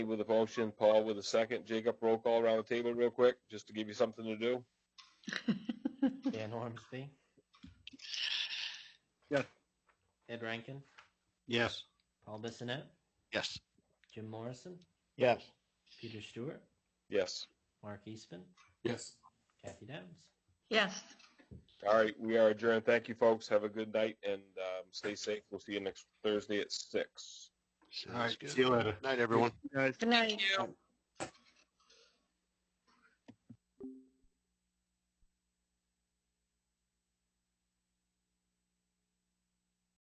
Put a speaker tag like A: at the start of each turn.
A: with a motion, Paul with a second. Jacob, roll call around the table real quick, just to give you something to do.
B: Dan Ormsby.
C: Yes.
B: Ed Rankin,
C: Yes.
B: Paul Bissonnette,
C: Yes.
B: Jim Morrison,
C: Yes.
B: Peter Stewart,
A: Yes.
B: Mark Eastman,
C: Yes.
B: Kathy Downs.
D: Yes.
A: All right, we are adjourned. Thank you, folks. Have a good night and um, stay safe. We'll see you next Thursday at six.
C: All right,
E: Sounds
C: see
E: good.
C: you later.
E: Night, everyone.
D: Good night.
A: you.